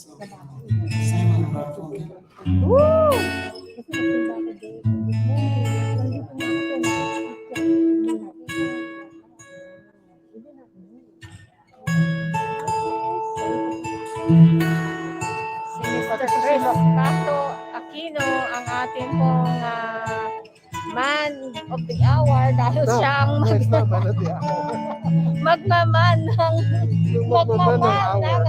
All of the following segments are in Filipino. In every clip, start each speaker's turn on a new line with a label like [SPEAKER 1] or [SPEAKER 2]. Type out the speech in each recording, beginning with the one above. [SPEAKER 1] Same on the left, okay?
[SPEAKER 2] Woo! Kasi mas yung bagay din. Nandito na ako na picture. Hindi na- Hindi na-
[SPEAKER 3] Secretary of Tato Aquino ang ating pong ah, man of the hour dahil
[SPEAKER 4] No,
[SPEAKER 3] siya ang
[SPEAKER 4] No,
[SPEAKER 3] mag-
[SPEAKER 4] it's not man of the hour.
[SPEAKER 3] magmaman ng,
[SPEAKER 4] Yung
[SPEAKER 3] magmaman
[SPEAKER 4] magbaban ng hour.
[SPEAKER 3] ng,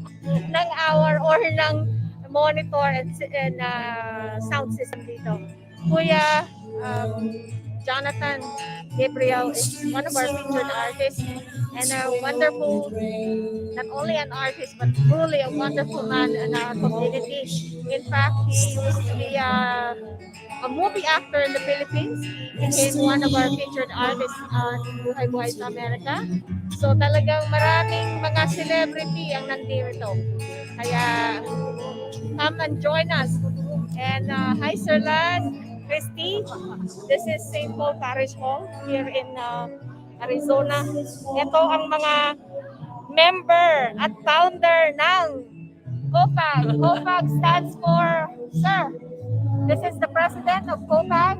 [SPEAKER 3] ng hour or ng monitor and, si- and ah, sound system dito. Kuya um, Jonathan Gabriel is one of our featured artists and a wonderful not only an artist but truly a wonderful man in our community. In fact, he used to be a, a movie actor in the Philippines. He became one of our featured artists on Buhay Buhay sa Amerika. So talagang maraming mga celebrity ang nandito. Kaya come and join us. And uh, hi Sir Lan, Christy. This is St. Paul Parish Hall here in uh, Arizona. Ito ang mga member at founder ng COPAG. COPAG stands for, sir, this is the president of COPAG.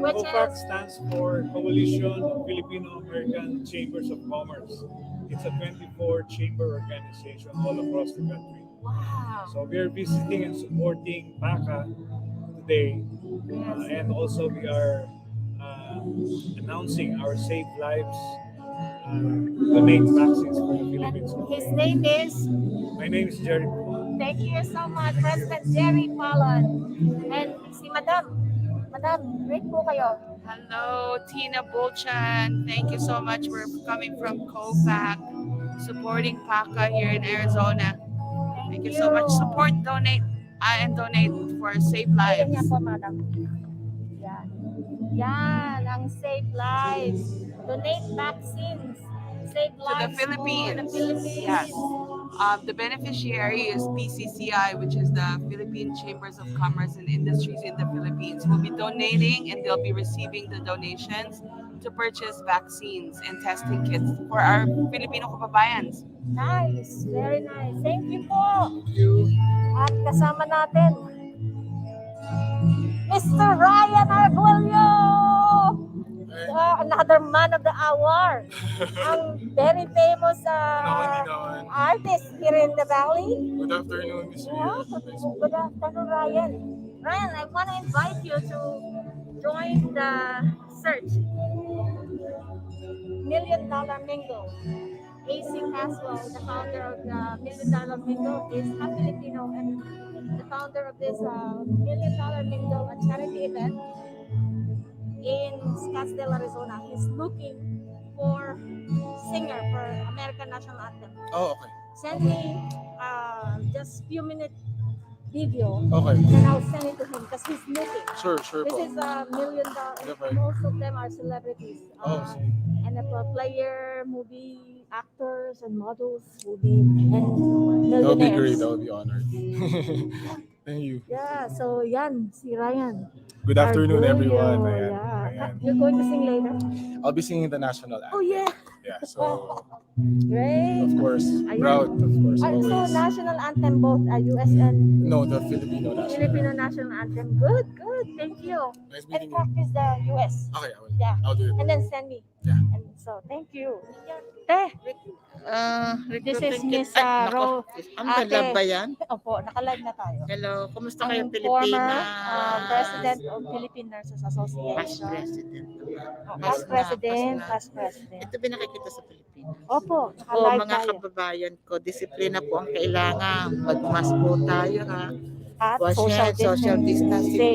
[SPEAKER 3] Which
[SPEAKER 5] COPAC Uh, stands for Coalition of Filipino American Chambers of Commerce. It's a 24 chamber organization all across the country.
[SPEAKER 3] Wow.
[SPEAKER 5] So we are visiting and supporting BACA today. Uh, and also we are uh, announcing our Save Lives uh, donate vaccines for the Philippines.
[SPEAKER 3] His name is,
[SPEAKER 5] My name is Jerry. Puma.
[SPEAKER 3] thank you so much, President Jerry Fallon. And si Madam, Madam, great po kayo.
[SPEAKER 6] Hello, Tina Bulchan. Thank you so much for coming from COPAC, supporting PACA here in Arizona. Thank you so much. Support, donate, uh, and donate for Save
[SPEAKER 3] Ayan
[SPEAKER 6] Lives.
[SPEAKER 3] niya po, madam. Yan. Yan, ang Save Lives. Donate vaccines. Save
[SPEAKER 6] the
[SPEAKER 3] lives
[SPEAKER 6] Philippines.
[SPEAKER 3] To the Philippines.
[SPEAKER 6] Yes. Um, the beneficiary is PCCI, which is the Philippine Chambers of Commerce and Industries in the Philippines. will be donating and they'll be receiving the donations to purchase vaccines and testing kits for our Filipino kababayans.
[SPEAKER 3] Nice. Very nice. Thank you po. At kasama natin, Mr. Ryan Arguello! Ah, another man of the hour. ang very famous ah,
[SPEAKER 7] naman.
[SPEAKER 3] artist here in the valley.
[SPEAKER 7] Good afternoon, Miss
[SPEAKER 3] Yeah, Good afternoon, Ryan. Ryan, I want to invite you to join the search. Million Dollar Mingle. AC Caswell, the founder of the Million Dollar Mingle, is a Filipino and the founder of this uh, Million Dollar Mingle, a charity event in Scottsdale, Arizona. He's looking for singer for American National Anthem
[SPEAKER 7] Oh, okay.
[SPEAKER 3] send me uh, just few minute video
[SPEAKER 7] Okay.
[SPEAKER 3] and I'll send it to him because he's looking.
[SPEAKER 7] Sure, sure po.
[SPEAKER 3] This is a million dollar.
[SPEAKER 7] Never.
[SPEAKER 3] and Most of them are celebrities.
[SPEAKER 7] Oh,
[SPEAKER 3] Uh,
[SPEAKER 7] sige.
[SPEAKER 3] NFL player, movie actors and models will be and
[SPEAKER 7] That would be
[SPEAKER 3] millionaires.
[SPEAKER 7] great. That would be honored. Thank you.
[SPEAKER 3] Yeah, so yan, si Ryan.
[SPEAKER 7] Good afternoon,
[SPEAKER 3] Arguello,
[SPEAKER 7] everyone. Ayan,
[SPEAKER 3] Yeah.
[SPEAKER 7] ayan.
[SPEAKER 3] You're going to sing later?
[SPEAKER 7] I'll be singing the national anthem.
[SPEAKER 3] Oh yeah,
[SPEAKER 7] Yeah, so
[SPEAKER 3] great.
[SPEAKER 7] of course,
[SPEAKER 3] Ayan.
[SPEAKER 7] proud, of course,
[SPEAKER 3] Ah, so
[SPEAKER 7] always.
[SPEAKER 3] national anthem both uh, US and
[SPEAKER 7] No, the Filipino national. anthem.
[SPEAKER 3] Filipino national anthem. Good, good. Thank you.
[SPEAKER 7] Nice
[SPEAKER 3] and
[SPEAKER 7] meeting you.
[SPEAKER 3] practice the US.
[SPEAKER 7] Okay, I will.
[SPEAKER 3] Yeah.
[SPEAKER 7] I'll do it.
[SPEAKER 3] And then send me.
[SPEAKER 7] Yeah.
[SPEAKER 3] And so thank you. Te,
[SPEAKER 4] Ah,
[SPEAKER 3] this is
[SPEAKER 4] recruiting
[SPEAKER 3] Miss
[SPEAKER 4] kit- Ay,
[SPEAKER 3] uh,
[SPEAKER 4] nako.
[SPEAKER 3] Ro.
[SPEAKER 4] Ang dalab
[SPEAKER 3] Ate.
[SPEAKER 4] ba yan?
[SPEAKER 3] Opo, nakalive na tayo.
[SPEAKER 4] Hello, kumusta
[SPEAKER 3] Ang
[SPEAKER 4] kayo
[SPEAKER 3] former
[SPEAKER 4] Pilipinas?
[SPEAKER 3] uh, president of Philippine Nurses
[SPEAKER 4] Past
[SPEAKER 3] Association.
[SPEAKER 4] president.
[SPEAKER 3] Oh,
[SPEAKER 4] Past
[SPEAKER 3] Past
[SPEAKER 4] na,
[SPEAKER 3] president,
[SPEAKER 4] past na.
[SPEAKER 3] past president.
[SPEAKER 4] Ito binakikita sa Pilipinas.
[SPEAKER 3] Opo,
[SPEAKER 4] O
[SPEAKER 3] nakalive
[SPEAKER 4] mga
[SPEAKER 3] Ah, tayo.
[SPEAKER 4] kababayan ko, disiplina po ang kailangan. Magmask po tayo ha.
[SPEAKER 3] At
[SPEAKER 4] Wash
[SPEAKER 3] social
[SPEAKER 4] hand, social distancing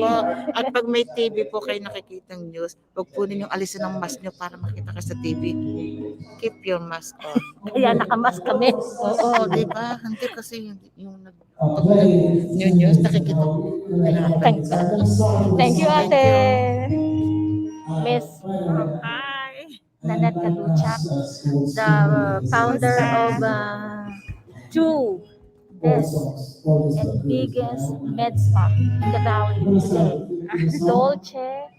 [SPEAKER 3] Same.
[SPEAKER 4] po. At pag may TV po kayo nakikitang news, huwag po ninyong alisin ang mask nyo para makita ka sa TV. Keep your mask on.
[SPEAKER 3] Kaya nakamas kami.
[SPEAKER 4] Oo, di ba? Hindi kasi yung, yung nag pag new news, nakikita ko. Kailangan
[SPEAKER 3] Thank-
[SPEAKER 4] palitan.
[SPEAKER 3] Thank you,
[SPEAKER 4] Thank
[SPEAKER 3] ate.
[SPEAKER 1] Miss
[SPEAKER 3] Hi. Nanette Kaduchak, the founder of uh, two best uh, and biggest med spa in the valley today. Dolce